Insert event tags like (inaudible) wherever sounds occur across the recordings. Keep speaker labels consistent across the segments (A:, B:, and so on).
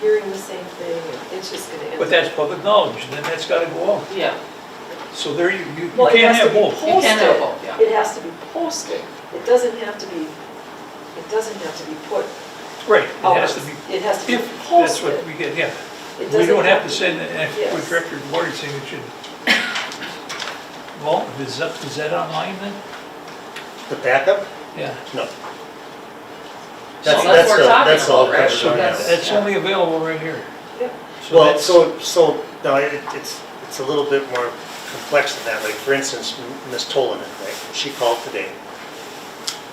A: hearing the same thing, and it's just gonna end.
B: But that's public knowledge, and then that's gotta go out.
C: Yeah,
B: So there, you, you you
A: Well, it
B: can't
A: has to
B: have
A: be
B: both.
C: You can't have both,
A: posted.
C: yeah.
A: It has to be posted, it doesn't have to be, it doesn't have to be put
B: Right, it
A: out.
B: has to be,
A: It has to be
B: if, that's
A: posted.
B: what we get, yeah.
A: It
B: We
A: doesn't
B: don't have to
A: be-
B: send an
A: Yes.
B: adequate record warning signature. Well, is that, is that online then?
D: The backup?
B: Yeah.
D: No.
C: that's
D: That's,
C: what
D: that's
C: we're
D: the,
C: talking
D: that's all
C: about, right?
D: covered
B: So
D: right now.
B: that- that's
C: Yeah.
B: only available right here.
A: Yep.
D: Well,
B: that's-
D: so, so, no, it, it's, it's a little bit more complex than that, like, for instance, M- Ms. Tolanen, right, she called today.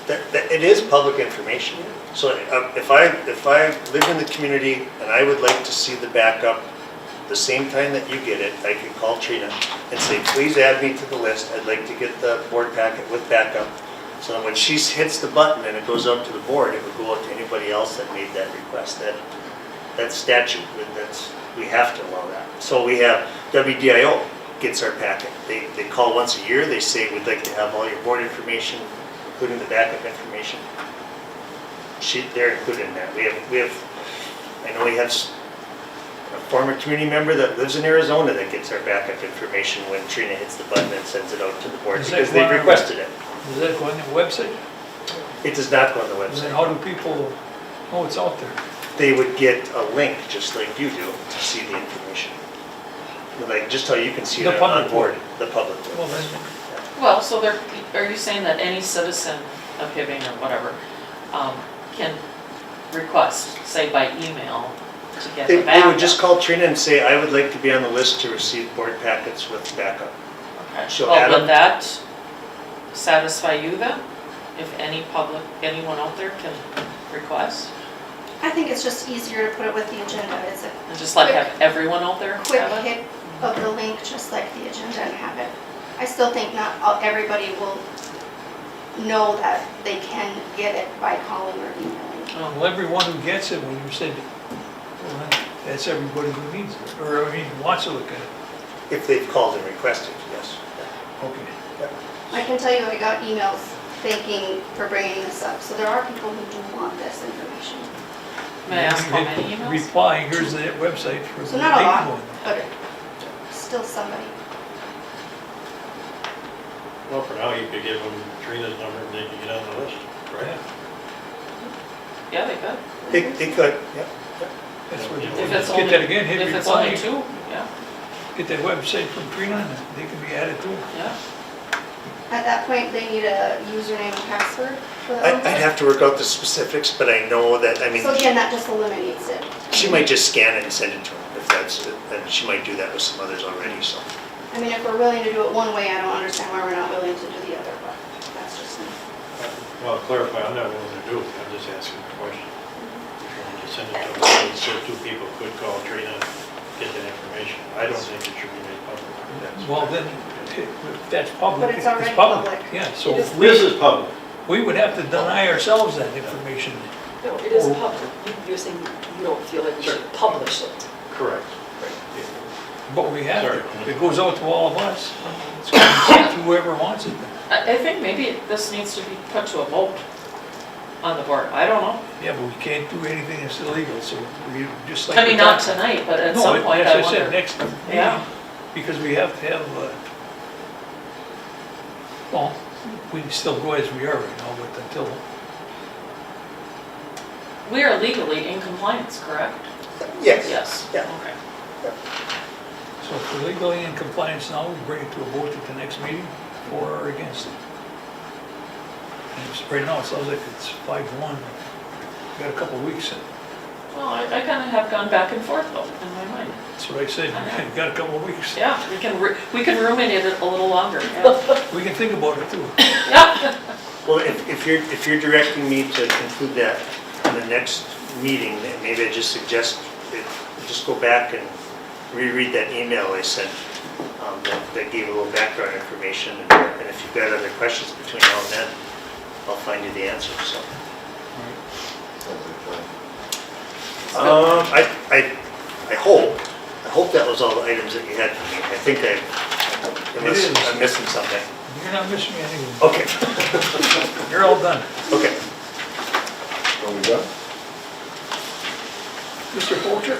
D: That, that, it is public information, so uh, if I, if I live in the community and I would like to see the backup, the same time that you get it, I could call Trina and say, please add me to the list, I'd like to get the board packet with backup. So then when she hits the button and it goes up to the board, it would go out to anybody else that made that request, that that statute, that- that's, we have to allow that. So we have, WDIO gets our packet, they, they call once a year, they say, we'd like to have all your board information, including the backup information. She, they're included in that, we have, we have, I know we have s- a former community member that lives in Arizona that gets our backup information when Trina hits the button and sends it out to the board,
B: Is that
D: because they
B: one-
D: requested it.
B: Does that go on the website?
D: It does not go on the
B: And then
D: website,
B: how do people know it's out there?
D: they would get a link, just like you do, to see the information. Like, just how you can see it
B: The public
D: on board, the public.
B: Well, then,
C: well, so there, are you saying that any citizen of Hibbing or whatever, um, can request, say by email, to get
D: They
C: the
D: they
C: backup?
D: would just call Trina and say, I would like to be on the list to receive board packets with backup.
C: Okay.
D: she'll add
C: Well,
D: them.
C: would that satisfy you then? If any public, anyone out there can request?
E: I think it's just easier to put it with the agenda. It's a
C: And just like have everyone out there
E: quick
C: have it?
E: hit of the link, just like the agenda and have it. I still think not all- everybody will know that they can get it by calling or emailing.
B: well, everyone who gets it, when you send it, well, then, that's everybody who needs it, or I mean, wants to look at it.
D: If they've called and requested, yes.
B: Okay.
E: I can tell you I got emails thanking for bringing this up, so there are people who do want this information.
C: May I ask how
B: You
C: many
B: hit
C: emails?
B: Reply, here's the website for the
E: So not a
B: big
E: lot,
B: one.
E: but still somebody.
F: Well, for now, you could give them Trina's number and they could get on the list, right?
C: Yeah, they could.
D: They,
E: Mm-hmm.
D: they could, yeah.
B: That's what you
C: If
B: want.
C: it's
B: Get
C: only,
B: that again, hit
C: if it's only
B: reply,
C: two, yeah,
B: get that website from Trina, and they can be added to it.
C: yeah.
E: At that point, they need a username and password for
D: I,
E: that.
D: I'd have to work out the specifics, but I know that, I mean,
E: So again, that just eliminates it.
D: she might just scan it and send it to them, if that's, and she might do that with some others already, so.
E: I mean, if we're willing to do it one way, I don't understand why we're not willing to do the other, but that's just me.
F: Well, clarify, I'm not willing to do it, I'm just asking a question. If you want to send it to them, so two people could call Trina, and get that information. I don't think it should be made public. That's-
B: Well, then, it- that's public.
E: But it's already public.
B: Yeah, so
A: It is-
F: This is public.
B: we would have to deny ourselves that information.
A: No, it is public, You- you're saying you don't feel like we
F: Sure.
A: should publish it.
F: Correct.
B: But we have to,
F: Sorry.
B: it goes out to all of us. It's going to send to whoever wants it.
C: I, I think maybe this needs to be put to a vote on the board, I don't know.
B: Yeah, but we can't do anything that's illegal, so we just like.
C: I mean,
B: we
C: not
B: talked-
C: tonight, but at
B: No,
C: some point, I
B: as I said,
C: wonder.
B: next meeting,
C: Yeah.
B: because we have to have, uh, well, we can still go as we are right now, but until,
C: We are legally in compliance, correct?
D: Yes.
C: Yes.
D: Yeah.
C: Okay.
B: so if we're legally in compliance now, we bring it to a vote at the next meeting, for or against it. And it's- right now, it sounds like it's five one, we got a couple of weeks,
C: Well, I, I kind of have gone back and forth though, in my mind.
B: that's what I said, we got a couple of weeks,
C: Yeah, we can, ru- we can ruminate it a little longer. Yeah.
B: (laughs) we can think about it too.
C: Yeah.
D: Well, if, if you're, if you're directing me to conclude that in the next meeting, then maybe I just suggest, that- just go back and reread that email I sent um, that that gave a little background information, and if you've got other questions between now and then, I'll find you the answer, so. Um, I, I, I hope, I hope that was all the items that you had for me. I think I,
B: It is.
D: unless I'm missing something.
B: You're not missing anything,
D: Okay,
B: you're all done.
D: okay.
G: Are we done?
B: Mr. Folger?